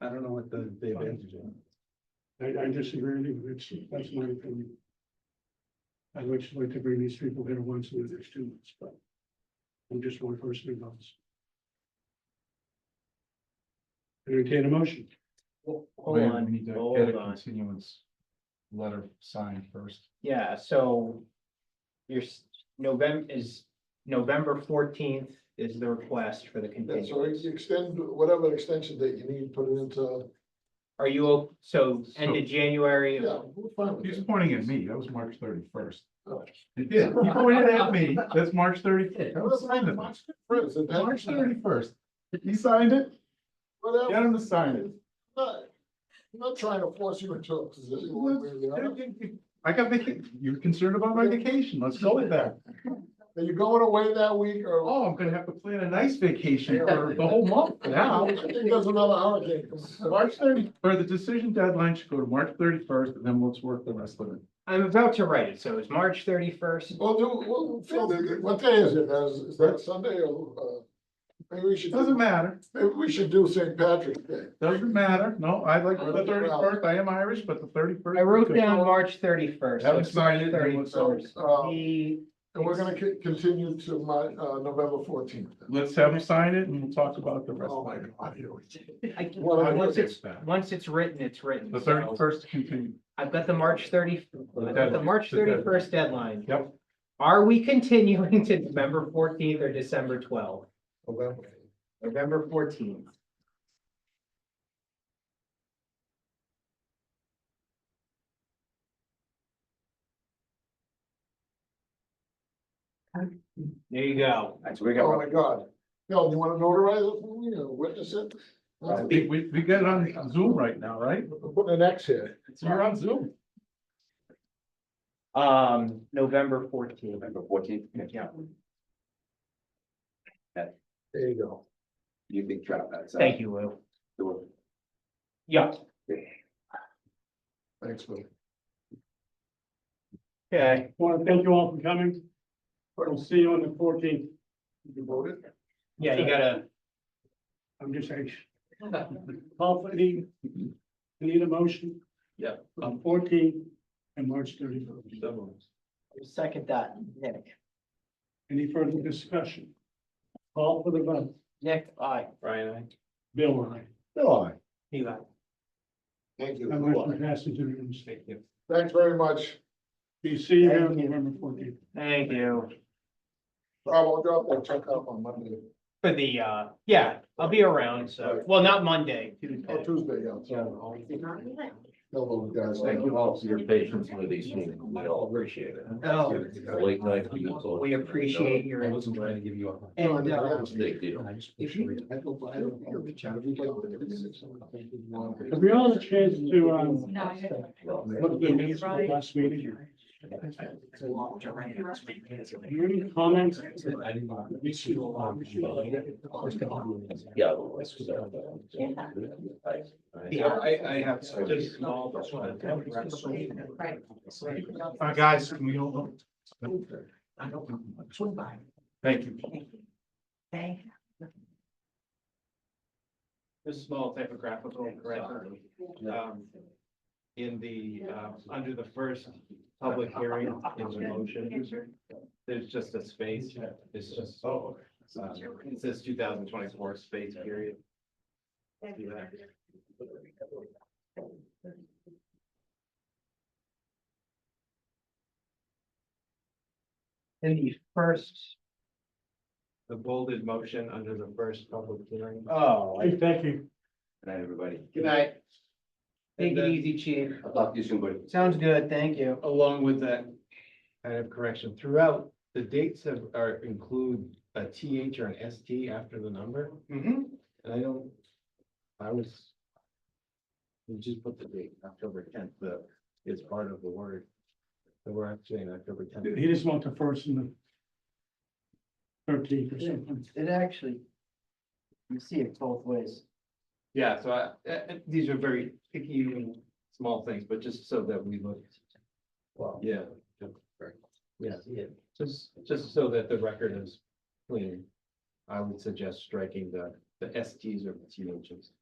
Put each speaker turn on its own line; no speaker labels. I don't know what the, the advantage is.
I, I disagree with you, it's, that's my opinion. I'd like to, like to bring these people here once in the next two months, but I'm just one person involved. Entertain a motion,
Hold
Wait,
on,
We need to
hold
get a
on.
continuance letter signed first.
Yeah, so your November is November fourteenth is the request for the
Yeah, so
continuance.
you extend whatever extension date you need, put it into,
Are you, o- so end of January?
yeah, we're fine with
He's
that.
pointing at me. That was March thirty-first.
Oh.
He did. He pointed at me. That's March thirty-first. That was signed it.
March 31st, and then-
March thirty-first. He signed it. Get
Whatever,
him to sign it.
not, I'm not trying to force you into a position one way or the other.
I got vacation. You're concerned about my vacation. Let's go with that.
Are you going away that week or?
Oh, I'm gonna have to plan a nice vacation for the whole month now.
I think there's another holiday. coming.
March thirty, or the decision deadline should go to March thirty-first and then let's work the rest of it.
I'm about to write it, so it's March thirty-first.
Well, do, well, Phil, what day is it? Is, is that Sunday or, uh, maybe we should,
Doesn't matter.
maybe we should do St. Patrick's Day.
Doesn't matter, no, I like
Or
the
the
thirty-first, I am Irish, but the thirty-first.
I wrote down March thirty-first.
Haven't signed it, then what's
So, uh,
The,
and we're gonna co- continue to my, uh, November fourteenth.
Let's have him sign it and we'll talk about the rest.
Oh,
of
my
it.
God, here we go.
I,
Well, I
once
looked
it's,
It's that.
once it's written, it's written.
The
so
thirty-first continue.
I've got the March thirty, I've got the
deadline,
March
the deadline.
thirty-first deadline.
Yep.
Are we continuing to November fourteenth or December twelfth?
November.
November fourteenth. There you go.
That's what we
Oh,
got.
my God. Phil, you wanna notarize it for me or witness it?
Uh, We, we, we got it on Zoom right now, right?
I'm Putting an X here.
We're on Zoom.
Um, November fourteenth.
November fourteenth,
Yeah,
There you go.
you can drop that.
thank you, Lou.
you.
Yeah,
Thanks, Phil.
okay.
want to thank you all for coming, we'll see you on the fourteenth,
You voted?
Yeah, you gotta,
I'm just anxious. Call for the, I need a motion.
Yeah.
On fourteen and March thirty-first.
second that, Nick.
Any further discussion? Call for the vote.
Nick, aye.
Brian, I.
Bill, aye.
No, I.
Eli.
That
Thank you.
motion passes unanimously.
Thanks very much.
We see you on November fourteenth.
Thank you.
Rob, I'll drop that check off on Monday,
For the, uh, yeah, I'll be around, so, well, not Monday.
or
Tuesday.
Oh, Tuesday, yeah. so Tell those guys.
Thank you all for your patience with these meetings. We all appreciate it.
Oh.
It's a late night for you all.
We appreciate your.
to give you a.
And, uh,
It's a big deal.
If you. I go by.
Have we all had a chance to, um,
No, I didn't.
look at the minutes from the last meeting? Any comments?
Yeah.
Yeah,
I, I have.
Just small, that's what I'm-
Right.
Uh, guys, can we all? Thank you.
Thank
This is small typographical correction.
Uh,
Um, In the, uh, under the first public hearing in the motion, there's just a space, it's just, oh. It says two thousand twenty-four space period.
In the first,
The bolded motion under the first public hearing.
oh. I-
Hey, thank you.
Good night, everybody.
Good night. Take
And
it
then-
easy, chief.
I'll talk to you soon, buddy.
Sounds good, thank you.
along with that kind of correction throughout, the dates have, are include a TH or an ST after the number,
Mhm.
and I don't, I was. We just put the date, October tenth, the, is part of the word. So we're actually in October
He
tenth.
just wants the first and the thirteenth or something.
It actually. You see it both ways.
Yeah, so I, uh, uh, these are very picky and small things, but just so that we look. Well. Yeah. Yeah, yeah, just, just so that the record is clean, I would suggest striking the, the STs or the THs.